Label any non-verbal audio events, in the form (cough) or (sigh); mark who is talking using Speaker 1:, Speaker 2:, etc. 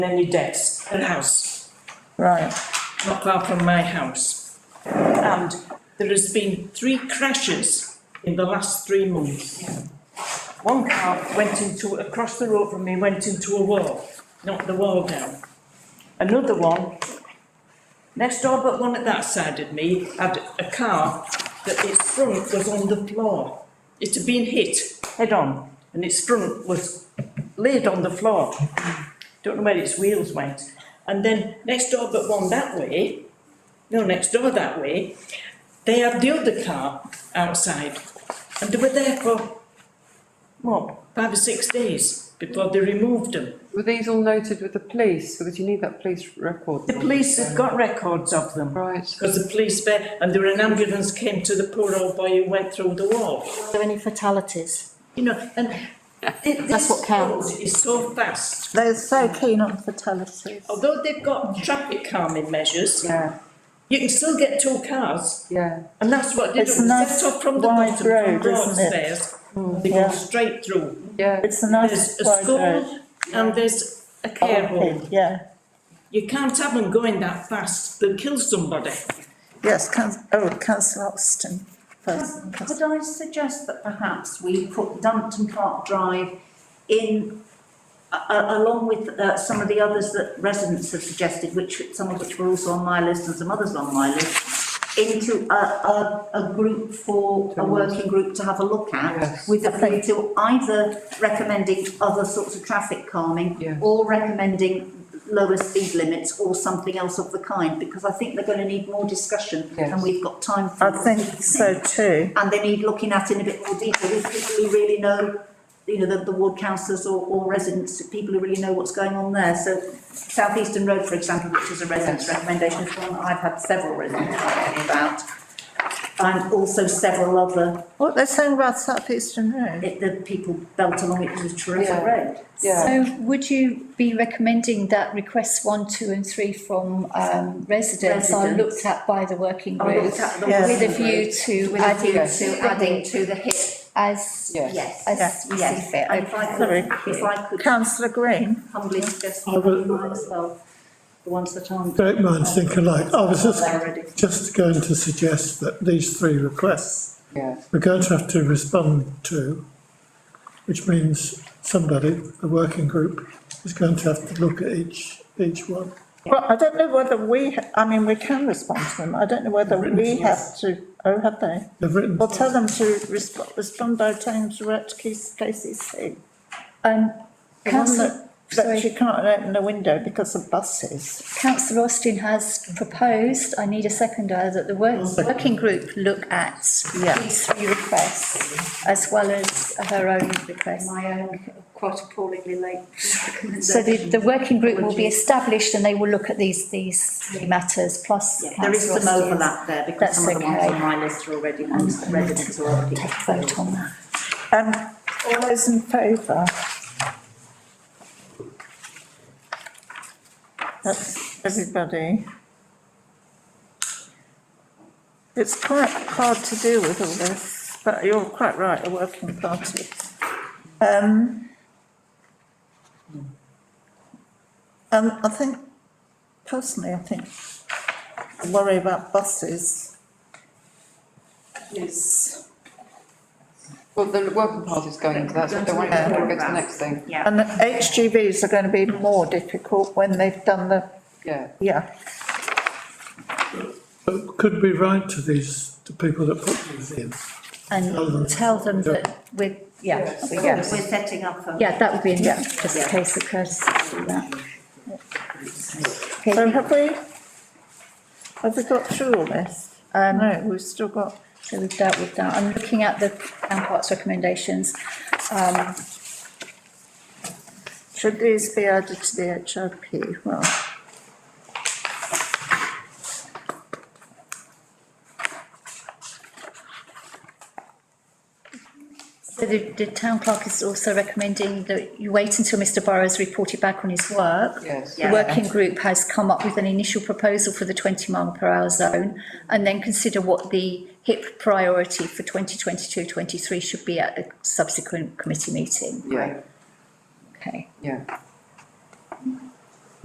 Speaker 1: any debts, and house,
Speaker 2: Right,
Speaker 1: not far from my house. And there has been three crashes in the last three months. One car went into, across the road from me, went into a wall, knocked the wall down. Another one, next door but one at that side of me, had a car that its front was on the floor. It had been hit head on and its front was laid on the floor. Don't know where its wheels went. And then next door but one that way, no, next door that way, they had the other car outside. And they were there for, what, five or six days before they removed them.
Speaker 3: Were these all noted with the police, because you need that police record?
Speaker 1: The police have got records of them.
Speaker 3: Right,
Speaker 1: Because the police were, and there were an ambulance came to the poor old boy who went through the wall.
Speaker 4: Are there any fatalities?
Speaker 1: You know, and thi-
Speaker 4: (laughs) That's
Speaker 1: this
Speaker 4: what counts.
Speaker 1: road is so fast.
Speaker 2: they're so keen on fatalities.
Speaker 1: Although they've got traffic calming measures,
Speaker 3: yeah,
Speaker 1: you can still get two cars.
Speaker 3: yeah,
Speaker 1: And that's what they do,
Speaker 2: It's a nice
Speaker 1: set off from the
Speaker 2: wide
Speaker 1: bottom, from
Speaker 2: road, isn't it? Mm,
Speaker 1: Broadstairs. They go
Speaker 2: yeah.
Speaker 1: straight through.
Speaker 3: yeah.
Speaker 2: It's a
Speaker 1: There's
Speaker 2: nice
Speaker 1: a
Speaker 2: wide road. Oh,
Speaker 1: school and there's a care home.
Speaker 2: Yeah,
Speaker 1: You can't have them going that fast, they'll kill somebody.
Speaker 2: yes, Council, oh, councillor Austin first. Councillor-
Speaker 5: Could I suggest that perhaps we put Dumpton Park Drive in, a- a- along with uh, some of the others that residents have suggested, which, some of which were also on my list and some others on my list, into a, a, a group for, a working group to have a look at,
Speaker 3: Yes.
Speaker 5: with a
Speaker 2: I think-
Speaker 5: view to either recommending other sorts of traffic
Speaker 3: Yeah.
Speaker 5: calming, or recommending lower speed limits or something else of the kind, because I think they're going to need more discussion, and
Speaker 3: Yes.
Speaker 5: we've got time for.
Speaker 2: I
Speaker 5: it.
Speaker 2: think so too.
Speaker 5: and they need looking at in a bit more detail, these people who really know, you know, the, the ward councillors or, or residents, people who really know what's going on there, so South Eastern Road, for example, which is a resident's recommendation, is one that I've had several residents talking about, and also several other,
Speaker 2: What they're saying about South Eastern Road?
Speaker 5: it- the people belt along it was a terrific
Speaker 3: Yeah.
Speaker 5: road.
Speaker 3: Yeah.
Speaker 4: So would you be recommending that requests one, two and three from um residents are
Speaker 5: Residents.
Speaker 4: looked at by the working
Speaker 5: I
Speaker 4: group?
Speaker 5: looked at the
Speaker 2: Yes.
Speaker 4: With a
Speaker 5: working group
Speaker 4: view to
Speaker 5: With a view
Speaker 4: adding
Speaker 5: to adding to the hip,
Speaker 4: as,
Speaker 3: Yes.
Speaker 5: yes,
Speaker 4: as we see
Speaker 5: yes.
Speaker 4: fit,
Speaker 5: And if I
Speaker 2: Sorry.
Speaker 5: could, if I could
Speaker 2: Councillor Green,
Speaker 5: humbly suggest
Speaker 6: I will-
Speaker 5: mine as well, the ones that aren't.
Speaker 6: Great minds think alike. I was just,
Speaker 5: Already.
Speaker 6: just going to suggest that these three requests,
Speaker 3: yeah,
Speaker 6: we're going to have to respond to, which means somebody, the working group, is going to have to look at each, each one.
Speaker 2: well, I don't know whether we, ha- I mean, we can respond to them, I don't know whether
Speaker 6: Written
Speaker 2: we
Speaker 6: to
Speaker 2: have to, oh, have they?
Speaker 6: They've written,
Speaker 2: Well, tell them to respond, respond by telling them to write to K- KCC.
Speaker 4: Um,
Speaker 2: The one
Speaker 4: councillor
Speaker 2: that- That
Speaker 4: sorry.
Speaker 2: you can't open the window because of buses.
Speaker 4: councillor Austin has proposed, I need a seconder, that the work,
Speaker 5: Mm.
Speaker 4: working group look at
Speaker 2: Yeah.
Speaker 4: these three requests as well as her own request.
Speaker 5: my own quite appallingly late recommendation.
Speaker 4: So the, the working group will be established and they will look at these, these three matters plus.
Speaker 5: Yeah, There is some
Speaker 4: councillor Austin's
Speaker 5: overlap there because
Speaker 4: That's
Speaker 5: some of the ones
Speaker 4: okay.
Speaker 5: on my list are already ones that residents are already.
Speaker 4: Take a vote on that.
Speaker 2: Um, all those in favour? That's everybody. It's quite hard to deal with all this, but you're quite right, a working party. Um. Um, I think, personally, I think, the worry about buses is
Speaker 3: well, the working party's going into that, so I don't want it to go to the next thing,
Speaker 5: Yeah,
Speaker 2: And the HGVs are going to be more difficult when they've done the,
Speaker 3: yeah.
Speaker 2: yeah,
Speaker 6: but could we write to these, to people that put these in?
Speaker 4: And tell them that we're, yeah,
Speaker 5: we're setting up a.
Speaker 4: yeah, that would be enough, just in case of courtesy to do that.
Speaker 2: so
Speaker 4: Okay,
Speaker 2: have we? Have we got through all this? Um, no, we've still got,
Speaker 4: so we've dealt with that. I'm looking at the town parks recommendations. Um,
Speaker 2: should these be added to the HRP? Well,
Speaker 4: so the, the town clerk is also recommending that you wait until Mr Burrows reported back on his work.
Speaker 3: Yes.
Speaker 4: The working group has come up with an initial proposal for the twenty mile per hour zone and then consider what the HIP priority for 2022-23 should be at the subsequent committee meeting.
Speaker 3: Yeah,
Speaker 4: Okay,
Speaker 3: yeah,